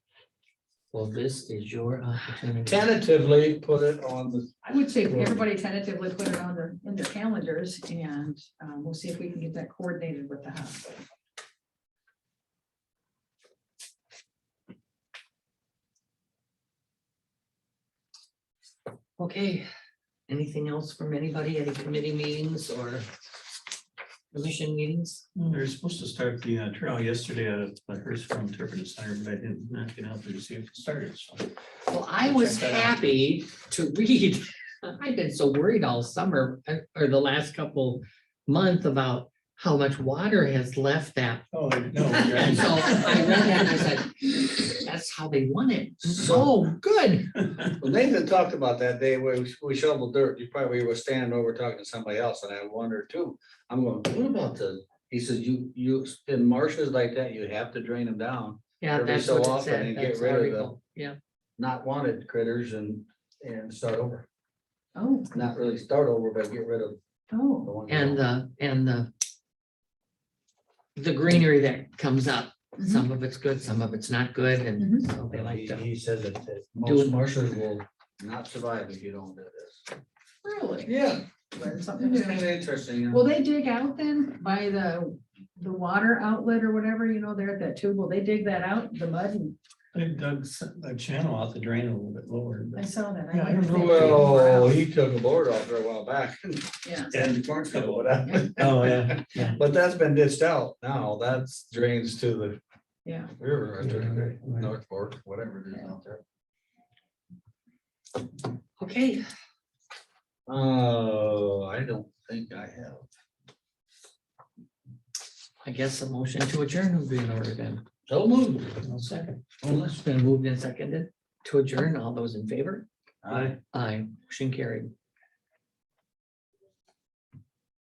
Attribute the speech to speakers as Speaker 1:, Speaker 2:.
Speaker 1: Well, this is your opportunity.
Speaker 2: tentatively put it on the,
Speaker 3: I would say if
Speaker 2: Sure.
Speaker 3: everybody tentatively put it on their, in their calendars and um, we'll see if we can get that coordinated with the hospital.
Speaker 1: Okay, anything else from anybody, any committee meetings or commission meetings?
Speaker 4: They're supposed to start the uh, trial yesterday at the Hurstville Interpretive Center, but I did not get out there to see if it started. so.
Speaker 1: Well, I was
Speaker 4: Check that out.
Speaker 1: happy to read. I've been so worried all summer uh, or the last couple month about how much water has left that.
Speaker 4: Oh, no.
Speaker 1: And so I read that and I said, that's how they won it. So good.
Speaker 2: Nathan talked about that day where we- we shoveled dirt, you probably were standing over talking to somebody else, and I wondered too, I'm going, what about the? He says, you, you, in marshes like that, you have to drain them down,
Speaker 1: Yeah,
Speaker 2: Every
Speaker 1: that's
Speaker 2: so
Speaker 1: what it
Speaker 2: often
Speaker 1: said.
Speaker 2: you get
Speaker 1: That's
Speaker 2: rid of them.
Speaker 1: horrible. Yeah,
Speaker 2: not wanted critters and, and start over.
Speaker 3: Oh,
Speaker 2: Not really start over, but get rid of the
Speaker 3: oh,
Speaker 2: ones.
Speaker 1: and uh, the, and the the greenery that comes up, some of it's good, some of it's not good, and so they like
Speaker 2: He
Speaker 1: to.
Speaker 2: he says that that
Speaker 1: Do it.
Speaker 2: most marshes will not survive if you don't do this.
Speaker 3: really?
Speaker 2: Yeah.
Speaker 3: Learn something new.
Speaker 2: Interesting. yeah.
Speaker 3: Will they dig out then by the, the water outlet or whatever, you know, there at that tube? Will they dig that out, the mud? and-
Speaker 4: They dug s- a channel out the drain a little bit
Speaker 3: I
Speaker 4: lower. but-
Speaker 3: saw that. I
Speaker 4: Yeah, I
Speaker 3: wondered if
Speaker 4: don't
Speaker 3: they
Speaker 4: know.
Speaker 3: dig more
Speaker 2: Well,
Speaker 3: out.
Speaker 2: he took a board off there a while back.
Speaker 3: Yeah.
Speaker 4: And-
Speaker 2: Weren't gonna put up.
Speaker 4: Oh, yeah.
Speaker 2: But that's been ditched out now. That's drains to the
Speaker 3: Yeah,
Speaker 2: river, I think,
Speaker 4: Right, right.
Speaker 2: North Fork, whatever it is out there.
Speaker 1: Okay,
Speaker 2: Oh, I don't think I have.
Speaker 1: I guess a motion to adjourn would be in order then.
Speaker 2: So moved.
Speaker 4: I'll second.
Speaker 1: Well, It's been moved and seconded to adjourn. All those in favor?
Speaker 2: Aye.
Speaker 1: Aye, motion carried.